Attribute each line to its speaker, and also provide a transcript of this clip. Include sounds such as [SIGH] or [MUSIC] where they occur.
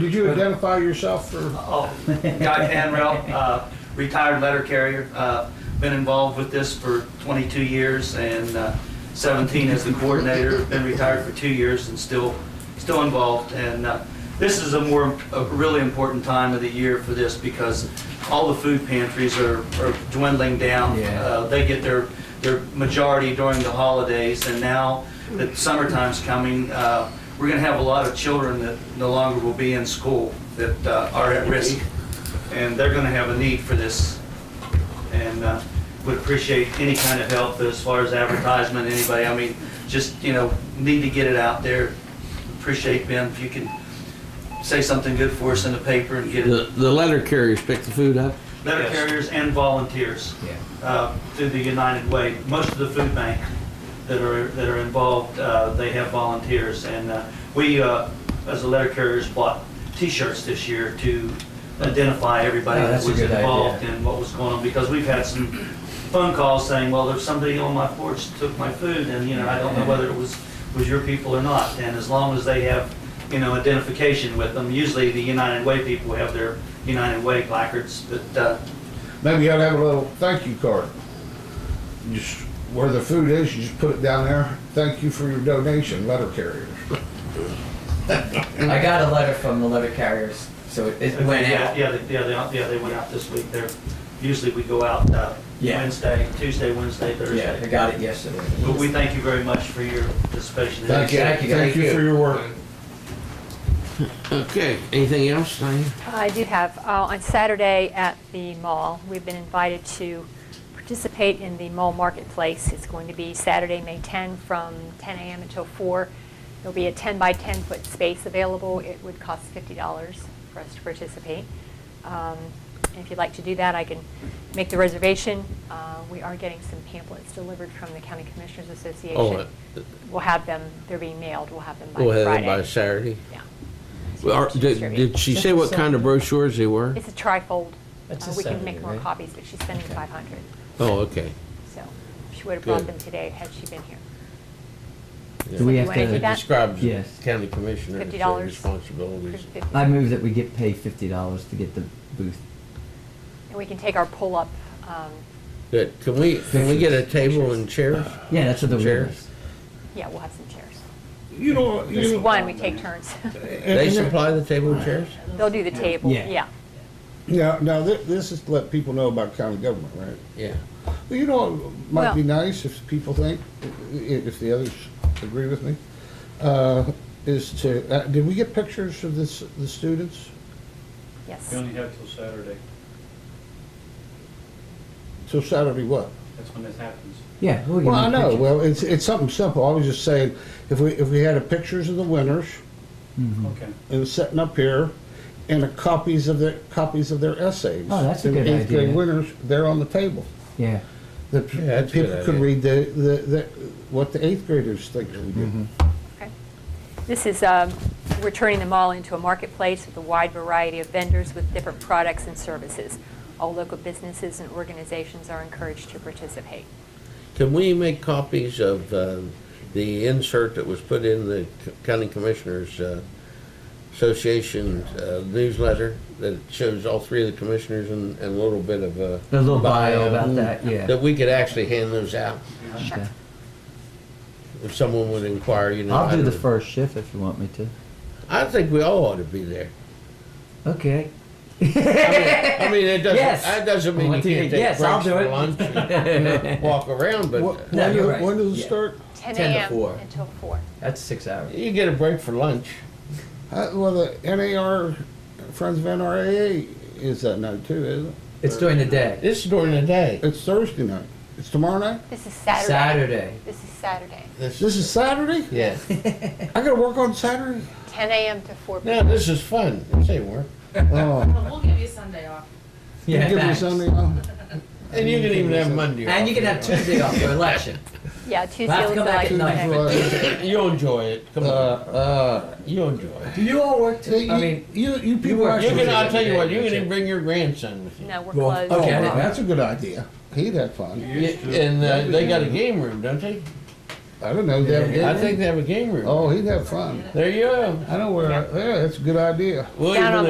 Speaker 1: Did you identify yourself for,
Speaker 2: Oh, Guy Panrel, uh, retired letter carrier, uh, been involved with this for 22 years and uh, 17 as the coordinator, been retired for two years and still, still involved. And uh, this is a more, a really important time of the year for this because all the food pantries are are dwindling down.
Speaker 3: Yeah.
Speaker 2: Uh, They get their, their majority during the holidays and now that summertime's coming, uh, we're going to have a lot of children that no longer will be in school that uh, are at risk. And they're going to have a need for this and uh, would appreciate any kind of help as far as advertisement, anybody. I mean, just, you know, need to get it out there. Appreciate Ben, if you can say something good for us in the paper and get
Speaker 4: The,
Speaker 2: it.
Speaker 4: the letter carriers pick the food up?
Speaker 2: Letter carriers and volunteers
Speaker 3: Yeah.
Speaker 2: uh, through the United Way. Most of the food bank that are, that are involved, uh, they have volunteers. And uh, we, uh, as the letter carriers, bought T-shirts this year to identify everybody
Speaker 3: Oh,
Speaker 2: that
Speaker 3: that's a
Speaker 2: was
Speaker 3: good idea.
Speaker 2: involved and what was going on. Because we've had some phone calls saying, well, there's somebody on my porch took my food, and, you know, I don't know whether it was, was your people or not. And as long as they have, you know, identification with them, usually the United Way people have their United Way placards, but uh,
Speaker 1: maybe you ought to have a little thank you card. Just where the food is, you just put it down there, thank you for your donation, letter carriers.
Speaker 3: I got a letter from the letter carriers, so it, it went
Speaker 2: Yeah,
Speaker 3: out.
Speaker 2: Yeah, they, yeah, they, yeah, they went out this week. They're, usually we go out, uh,
Speaker 3: Yeah.
Speaker 2: Wednesday, Tuesday, Wednesday,
Speaker 3: Yeah, I
Speaker 2: Thursday.
Speaker 3: got it yesterday.
Speaker 2: But we thank you very much for your participation.
Speaker 1: Thank you,
Speaker 3: Thank you, thank
Speaker 1: thank you
Speaker 3: you.
Speaker 1: for your work.
Speaker 4: Okay, anything else, Diane?
Speaker 5: I do have, uh, on Saturday at the mall, we've been invited to participate in the mall marketplace. It's going to be Saturday, May 10, from 10 a.m. until 4. There'll be a 10 by 10 foot space available. It would cost $50 for us to participate. Um, and If you'd like to do that, I can make the reservation. Uh, We are getting some pamphlets delivered from the County Commissioners Association.
Speaker 4: uh,
Speaker 5: We'll have them, they're being mailed, we'll have them by
Speaker 4: We'll
Speaker 5: Friday.
Speaker 4: have them by Saturday.
Speaker 5: Yeah.
Speaker 4: Well, are- Did
Speaker 5: Distribute.
Speaker 4: did she say what kind of brochures they were?
Speaker 5: It's a trifold.
Speaker 3: That's
Speaker 5: Uh,
Speaker 3: a
Speaker 5: We can
Speaker 3: Saturday,
Speaker 5: make more
Speaker 3: right?
Speaker 5: copies, but she's sending
Speaker 3: Okay.
Speaker 5: 500,
Speaker 4: Oh, okay.
Speaker 5: so she would have brought
Speaker 4: Good.
Speaker 5: them today had she been here.
Speaker 4: Yeah.
Speaker 6: Do we
Speaker 5: You
Speaker 6: have
Speaker 5: wanna do
Speaker 4: It
Speaker 6: to,
Speaker 5: that?
Speaker 4: describes the
Speaker 6: Yes.
Speaker 4: county commissioner's
Speaker 5: $50.
Speaker 4: responsibilities.
Speaker 5: For 50.
Speaker 6: I move that we get paid fifty dollars to get the booth.
Speaker 5: And we can take our pull-up, um,
Speaker 4: Good. Can we, can we get a table and chairs?
Speaker 6: Yeah, that's what the
Speaker 4: Chairs.
Speaker 6: word is.
Speaker 5: yeah, we'll have some chairs.
Speaker 1: You know, you
Speaker 5: Just
Speaker 1: know-
Speaker 5: one, we take turns.
Speaker 1: and-
Speaker 4: They
Speaker 1: and-
Speaker 4: supply the table and chairs?
Speaker 5: They'll do the table,
Speaker 6: Yeah.
Speaker 5: yeah.
Speaker 1: Now, now, thi- this is to let people know about county government, right?
Speaker 4: Yeah.
Speaker 1: Well, You know, it might be nice if people think, i- if the others agree with me, uh, is to, uh, did we get pictures of this, the students?
Speaker 5: Yes.
Speaker 7: We only have till Saturday.
Speaker 1: So Saturday what?
Speaker 7: That's when this happens.
Speaker 6: Yeah. we'll get
Speaker 1: Well, I
Speaker 6: more
Speaker 1: know,
Speaker 6: pictures.
Speaker 1: well, it's, it's something simple, I was just saying, if we, if we had a pictures of the winners
Speaker 6: Mhm.
Speaker 7: Okay.
Speaker 1: and setting up here, and a copies of their, copies of their essays.
Speaker 6: Oh, that's a
Speaker 1: and
Speaker 6: good
Speaker 1: Eighth grade
Speaker 6: idea.
Speaker 1: winners, they're on the table.
Speaker 6: Yeah,
Speaker 1: That
Speaker 4: Yeah, that's a good
Speaker 1: people could
Speaker 4: idea.
Speaker 1: read the, the, the, what the eighth graders think that we
Speaker 4: Mm-hmm.
Speaker 1: do.
Speaker 5: Okay. This is, um, we're turning the mall into a marketplace with a wide variety of vendors with different products and services. All local businesses and organizations are encouraged to participate.
Speaker 4: Can we make copies of um, the insert that was put in the county commissioners uh, association uh, newsletter that shows all three of the commissioners and, and a little bit of a.
Speaker 6: a little bio about that. Yeah.
Speaker 4: That we could actually hand those out
Speaker 6: Okay.
Speaker 4: if someone would inquire, you know. I
Speaker 6: I'll do the
Speaker 4: don't-
Speaker 6: first shift if you want me to.
Speaker 4: I think we all ought to be there.
Speaker 6: Okay.
Speaker 4: I mean, I mean, it doesn't,
Speaker 6: Yes.
Speaker 4: that doesn't mean you
Speaker 6: Want to-
Speaker 4: can't take
Speaker 6: yes, I'll
Speaker 4: breaks
Speaker 6: do
Speaker 4: for
Speaker 6: it.
Speaker 4: lunch
Speaker 6: [LAUGHS]
Speaker 4: and walk around, but
Speaker 1: What-
Speaker 4: uh,
Speaker 6: No,
Speaker 1: When,
Speaker 6: you're
Speaker 1: do-
Speaker 6: right.
Speaker 1: when does it
Speaker 6: Yeah.
Speaker 1: start?
Speaker 5: 10
Speaker 6: 10 to
Speaker 5: a.m.
Speaker 6: 4.
Speaker 5: until 4.
Speaker 6: That's six hours.
Speaker 4: you get a break for lunch.
Speaker 1: Uh, well, the NAR, Friends of NRAA is that night too, isn't it?
Speaker 6: It's during the day.
Speaker 4: This is during the day.
Speaker 1: It's Thursday night. It's tomorrow night?
Speaker 5: This is Saturday.
Speaker 6: Saturday.
Speaker 5: This is Saturday,
Speaker 1: This is Saturday?
Speaker 6: [LAUGHS]
Speaker 4: Yeah.
Speaker 1: I gotta work on Saturday?
Speaker 5: 10 a.m. to 4 p.m.
Speaker 4: Now, this is fun. This ain't work.
Speaker 1: Oh.
Speaker 8: We'll give you Sunday off.
Speaker 1: You
Speaker 6: Yeah.
Speaker 1: give me
Speaker 6: thanks.
Speaker 1: Sunday off?
Speaker 4: And you can even have Monday off.
Speaker 6: And you can have Tuesday off for election.
Speaker 5: Yeah, Tuesday
Speaker 6: We'll have to
Speaker 5: looks
Speaker 6: come back
Speaker 5: like
Speaker 6: at night.
Speaker 5: today.
Speaker 4: You'll enjoy it. Come
Speaker 1: Uh,
Speaker 4: on.
Speaker 1: uh,
Speaker 4: You'll enjoy it.
Speaker 6: Do you all work?
Speaker 1: you,
Speaker 6: To, I mean,
Speaker 1: you, you people
Speaker 6: work-
Speaker 4: You
Speaker 1: actually.
Speaker 4: can, I'll tell you what, you can even bring your grandson with you.
Speaker 5: No, we're
Speaker 6: Well,
Speaker 5: closed.
Speaker 1: Oh,
Speaker 6: Okay.
Speaker 1: well, that's a good idea. He'd have fun.
Speaker 7: You used to-
Speaker 4: And uh, they got a game room, don't they?
Speaker 1: I don't know, they have a game
Speaker 4: I
Speaker 1: room?
Speaker 4: think they have a game room.
Speaker 1: Oh, he'd have fun.
Speaker 4: There you go.
Speaker 1: I know where, I- yeah, that's a good idea.
Speaker 4: William
Speaker 5: Down
Speaker 4: and
Speaker 5: on